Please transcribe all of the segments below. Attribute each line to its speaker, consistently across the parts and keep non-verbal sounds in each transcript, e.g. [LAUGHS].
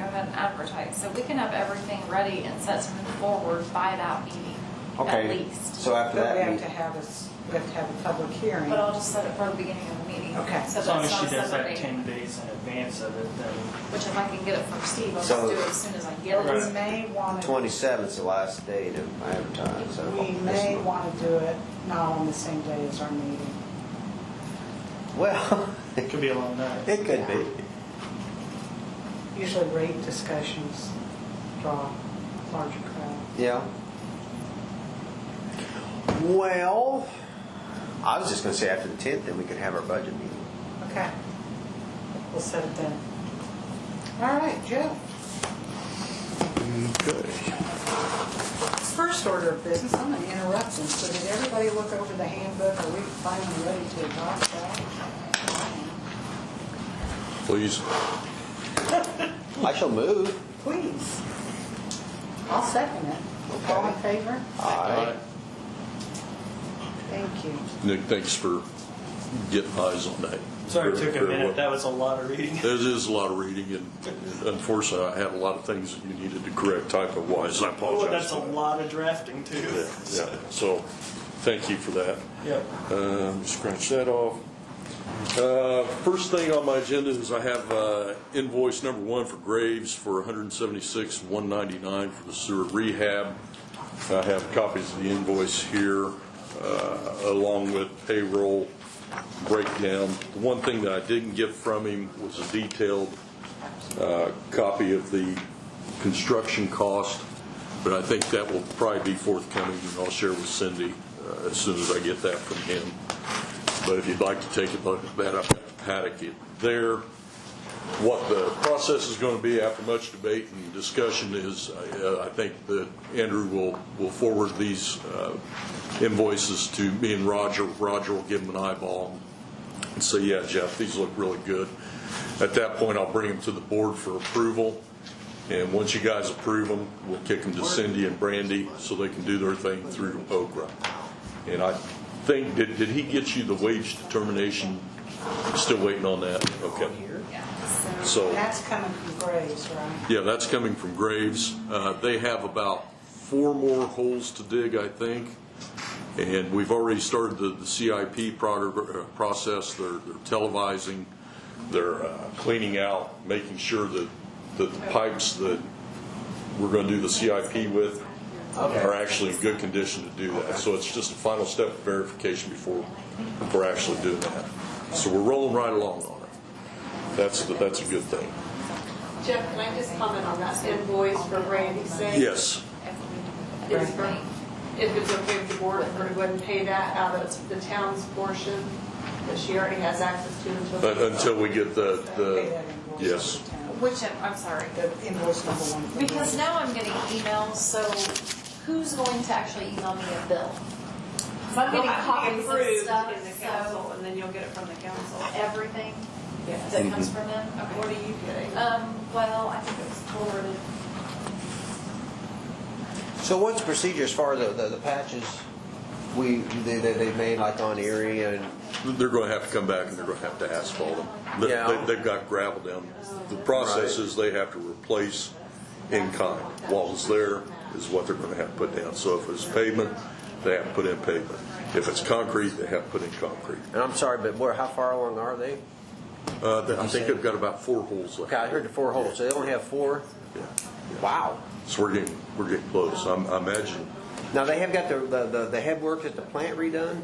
Speaker 1: advertise, so we can have everything ready and set something forward by that meeting, at
Speaker 2: Okay,
Speaker 1: least.
Speaker 2: so after
Speaker 3: But we
Speaker 2: that,
Speaker 3: have to
Speaker 2: meet-
Speaker 3: have this, we have to have a public hearing.
Speaker 1: But I'll just set it for the beginning of the meeting.
Speaker 3: Okay.
Speaker 1: So
Speaker 4: As long as
Speaker 1: that's
Speaker 4: she
Speaker 1: not
Speaker 4: does that
Speaker 1: separate,
Speaker 4: 10 days in advance of it, then
Speaker 1: which if I can get it from Steve, I'll just
Speaker 2: So-
Speaker 1: do it as soon as I get
Speaker 3: But
Speaker 1: it.
Speaker 3: we may want to,
Speaker 2: 27th's the last day to advertise, so.
Speaker 3: we may want to do it not on the same day as our meeting.
Speaker 2: [LAUGHS] Well,
Speaker 4: it could be a long night.
Speaker 2: it could be.
Speaker 3: Usually rate discussions draw larger crowd.
Speaker 2: Yeah. Well, I was just gonna say after the tenth, then we could have our budget meeting.
Speaker 3: Okay. We'll set it then. All right, Jeff. First order of business, I'm going to interrupt them. So did everybody look over the handbook? Are we finally ready to adopt that?
Speaker 5: Please.
Speaker 2: I shall move.
Speaker 3: Please. I'll second it. All in favor?
Speaker 2: Aye.
Speaker 3: Thank you.
Speaker 5: Nick, thanks for getting eyes on that.
Speaker 4: Sorry, it took a
Speaker 5: Very, very well.
Speaker 4: minute. That was a lot of reading.
Speaker 5: There is a lot of reading, and unfortunately, I had a lot of things that you needed to correct typo-wise, and I apologize.
Speaker 4: Oh, [LAUGHS] that's a
Speaker 5: for that.
Speaker 4: lot of drafting
Speaker 5: Yeah,
Speaker 4: too.
Speaker 5: yeah. so, thank you for that.
Speaker 4: Yep.
Speaker 5: Um, Scratch that off. Uh, First thing on my agenda is I have uh, invoice number one for Graves for $176,199 for the sewer rehab. I have copies of the invoice here, uh, along with payroll breakdown. The one thing that I didn't get from him was a detailed uh, copy of the construction cost, but I think that will probably be forthcoming, and I'll share with Cindy uh, as soon as I get that from him. But if you'd like to take a look at that, I've got the packet it there. What the process is going to be after much debate and discussion is, uh, I think that Andrew will, will forward these uh, invoices to me and Roger. Roger will give them an eyeball and say, yeah, Jeff, these look really good. At that point, I'll bring them to the board for approval. And once you guys approve them, we'll kick them to Cindy and Brandy so they can do their thing through Okra. And I think, did, did he get you the wage determination? Still waiting on that? Okay.
Speaker 1: Yeah, so,
Speaker 5: So.
Speaker 3: That's coming from Graves, right?
Speaker 5: Yeah, that's coming from Graves. Uh, They have about four more holes to dig, I think, and we've already started the the CIP prog- uh, process. They're they're televising, they're uh, cleaning out, making sure that that the pipes that we're going to do the CIP with are actually in good condition to do that. So it's just a final step of verification before we're actually doing that. So we're rolling right along on it. That's, the- that's a good thing.
Speaker 6: Jeff, can I just comment on that invoice for Randy's sake?
Speaker 5: Yes.
Speaker 6: Is for- If it's okay with the board, if we're to go ahead and pay that out of the town's portion that she already has access to
Speaker 5: But
Speaker 6: until.
Speaker 5: until we get the,
Speaker 3: Pay
Speaker 5: the,
Speaker 3: that invoice
Speaker 5: Uh, yes.
Speaker 3: to the town.
Speaker 1: which, I'm- I'm sorry,
Speaker 3: The invoice number one.
Speaker 1: because now I'm getting emails, so who's going to actually email me a bill? 'Cause I'm getting copies of stuff,
Speaker 6: In the council,
Speaker 1: so
Speaker 6: and then you'll get it from the council.
Speaker 1: everything
Speaker 6: Yes.
Speaker 1: that comes from them.
Speaker 6: What are you getting?
Speaker 1: Um, well, I think it was forwarded.
Speaker 2: So what's the procedure as far as the- the, the patches we, they, they they made like on Erie and,
Speaker 5: They're going to have to come back and they're going to have to asphalt them. They-
Speaker 2: Yeah.
Speaker 5: They, they've got gravel down. The process is they have to replace in kind. What was there is what they're going to have to put down. So if it's pavement, they have to put in pavement. If it's concrete, they have to put in concrete.
Speaker 2: and I'm sorry, but where, how far along are they?
Speaker 5: Uh, I think they've got about four holes left.
Speaker 2: Okay, I heard the four holes, so they only have four?
Speaker 5: Yeah.
Speaker 2: Wow.
Speaker 5: So we're getting, we're getting close. I'm, I imagine
Speaker 2: Now, they have got the, the- the, the headwork at the plant redone?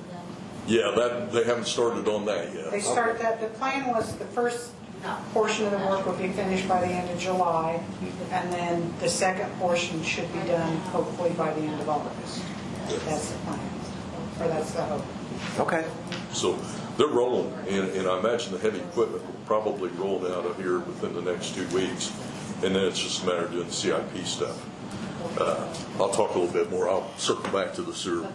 Speaker 5: Yeah, that, they haven't started on that
Speaker 3: They
Speaker 5: yet.
Speaker 3: start that, the plan was the first portion of the work would be finished by the end of July, and then the second portion should be done hopefully by the end of August. That's the plan, or that's the hope.
Speaker 2: Okay.
Speaker 5: So they're rolling, and, and I imagine the heavy equipment will probably roll out of here within the next two weeks. And then it's just a matter of doing the CIP stuff. Uh, I'll talk a little bit more. I'll circle back to the sewer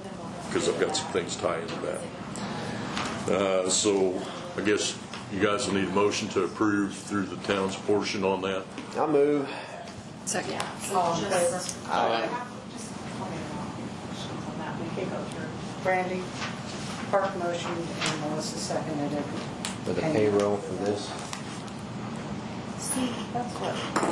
Speaker 5: because I've got some things tied into that. Uh, so I guess you guys will need a motion to approve through the town's portion on that.
Speaker 2: I'll move.
Speaker 1: Second.
Speaker 3: All in favor?
Speaker 5: Uh,
Speaker 3: Brandy, Park motioned, and Melissa seconded it.
Speaker 2: For the payroll for this?
Speaker 3: See, that's what.